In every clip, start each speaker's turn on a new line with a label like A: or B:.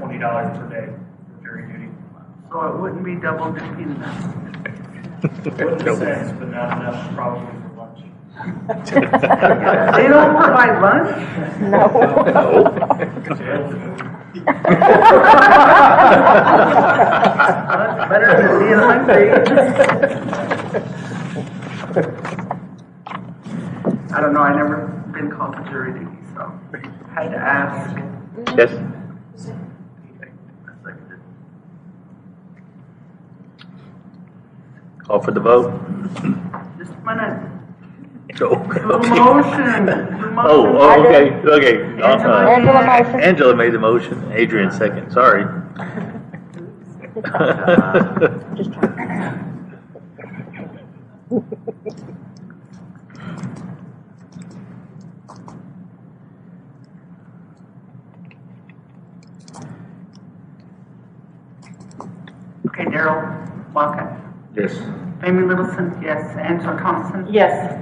A: fifty dollars per day for jury duty.
B: So it wouldn't be double dipping then.
A: Wouldn't sense, but not enough probably for lunch.
B: They don't provide lunch? That's better than being hungry. I don't know, I never been called to jury duty, so I had to ask.
C: Yes. Call for the vote?
B: Just a minute.
C: No.
B: The
C: Okay.
B: motion, the motion.
C: Oh, oh, okay, okay.
B: Angela.
C: Uh,
D: Angela motion.
C: Angela made the motion, Adrian second, sorry.
B: Okay, Daryl Walker.
C: Yes.
B: Amy Littleson, yes. Angela Thompson.
D: Yes.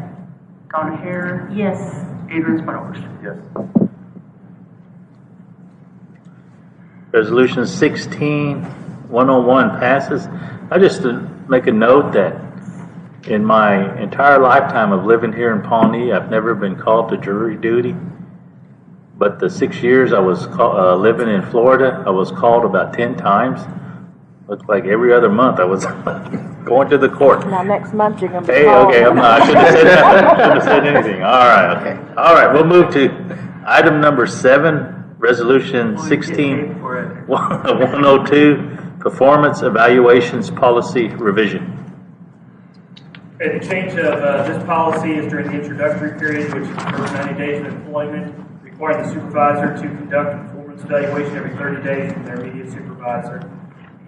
B: Donna Hare.
D: Yes.
B: Adrian Spargo.
C: Yes. Resolution 16-101 passes. I just uh, make a note that in my entire lifetime of living here in Pawnee, I've never been called to jury duty. But the six years I was call- uh, living in Florida, I was called about 10 times. Looked like every other month I was going to the court.
D: Now, next month, you're gonna be
C: Hey,
D: called.
C: okay, I'm not, I shouldn't have said, that. shouldn't have said anything, all right, okay. All right, we'll move to item number seven, resolution sixteen,
B: For it.
C: one oh two, performance evaluations policy revision.
A: Okay, the change of uh, this policy is during the introductory period, which is the first 90 days of employment, requiring the supervisor to conduct a performance evaluation every 30 days from their immediate supervisor.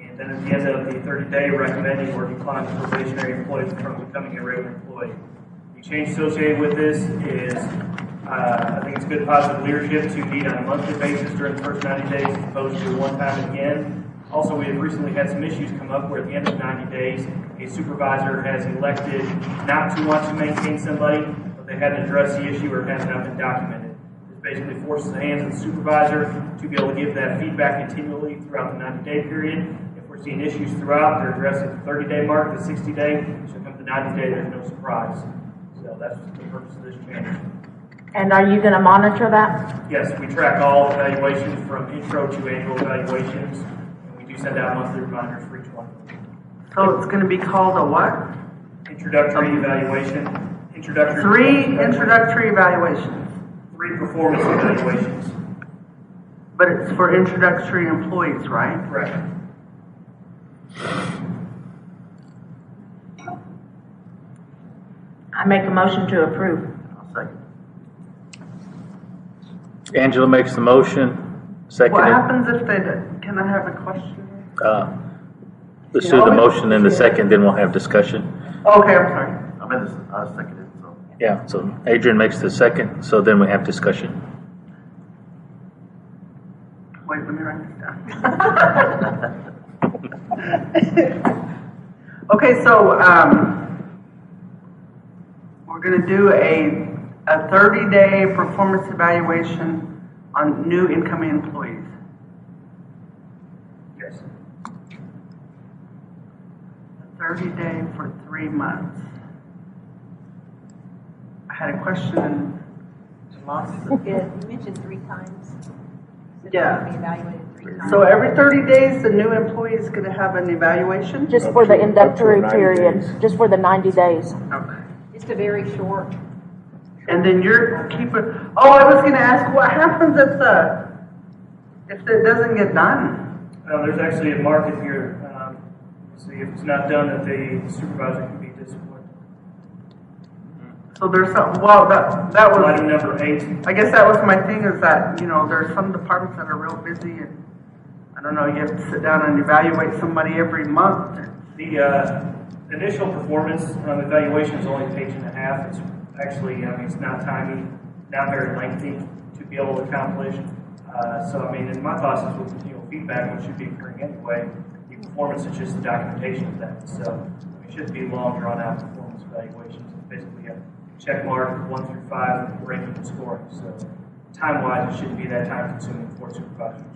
A: And then at the end of the 30-day, recommending or declining probationary employees from becoming a regular employee. The change associated with this is, uh, I think it's good positive leadership to meet on a monthly basis during the first 90 days as opposed to one time again. Also, we have recently had some issues come up where at the end of 90 days, a supervisor has elected not to want to maintain somebody, but they hadn't addressed the issue or it has not been documented. This basically forces the hands of the supervisor to be able to give that feedback continually throughout the 90-day period. If we're seeing issues throughout, they're addressed at the 30-day mark, the 60-day, so come the 90-day, there's no surprise. So that's the purpose of this change.
D: And are you gonna monitor that?
A: Yes, we track all evaluations from intro to annual evaluations, and we do send out monthly reminders for each one.
B: So it's gonna be called a what?
A: Introductory evaluation, introductory.
B: Three introductory evaluations,
A: Three performance evaluations,
B: but it's for introductory employees, right?
A: correct.
D: I make a motion to approve.
C: Angela makes the motion,
B: What
C: seconded,
B: happens if they, don't- can I have a question?
C: uh, let's do the motion and the second, then we'll have discussion.
B: Okay, I'm sorry.
E: I'm in this, I was thinking it, so.
C: Yeah, so Adrian makes the second, so then we have discussion.
B: Wait, let me write this down. Okay, so, um, we're gonna do a, a thirty-day performance evaluation on new incoming employees.
A: Yes.
B: Thirty-day for three months. I had a question.
F: Yeah, you mentioned three times. So they're
B: Yeah.
F: gonna Be evaluated three times.
B: So every thirty days, the new employee is gonna have an evaluation?
D: Just for the introductory
G: Up to 90
D: period,
G: days.
D: just for the ninety days.
B: Okay.
F: Just a very short.
B: And then you're keeping, oh, I was gonna ask, what happens if the, if it doesn't get done?
A: Uh, there's actually a market here, um, so if it's not done, that the supervisor can be disciplined.
B: So there's some, well, that, that
A: So Item
B: was,
A: number eight,
B: I guess that was my thing is that, you know, there's some departments that are real busy and, I don't know, you have to sit down and evaluate somebody every month.
A: The uh, initial performance um, evaluation is only a page and a half. It's actually, I mean, it's not timely, not very lengthy to be able to accomplish. Uh, So, I mean, in my process with continual feedback, which should be occurring anyway, the performance is just the documentation of that. So it shouldn't be long drawn-out performance evaluations. It's basically a check mark, one through five, ranking and scoring. So time-wise, it shouldn't be that time-consuming for supervisors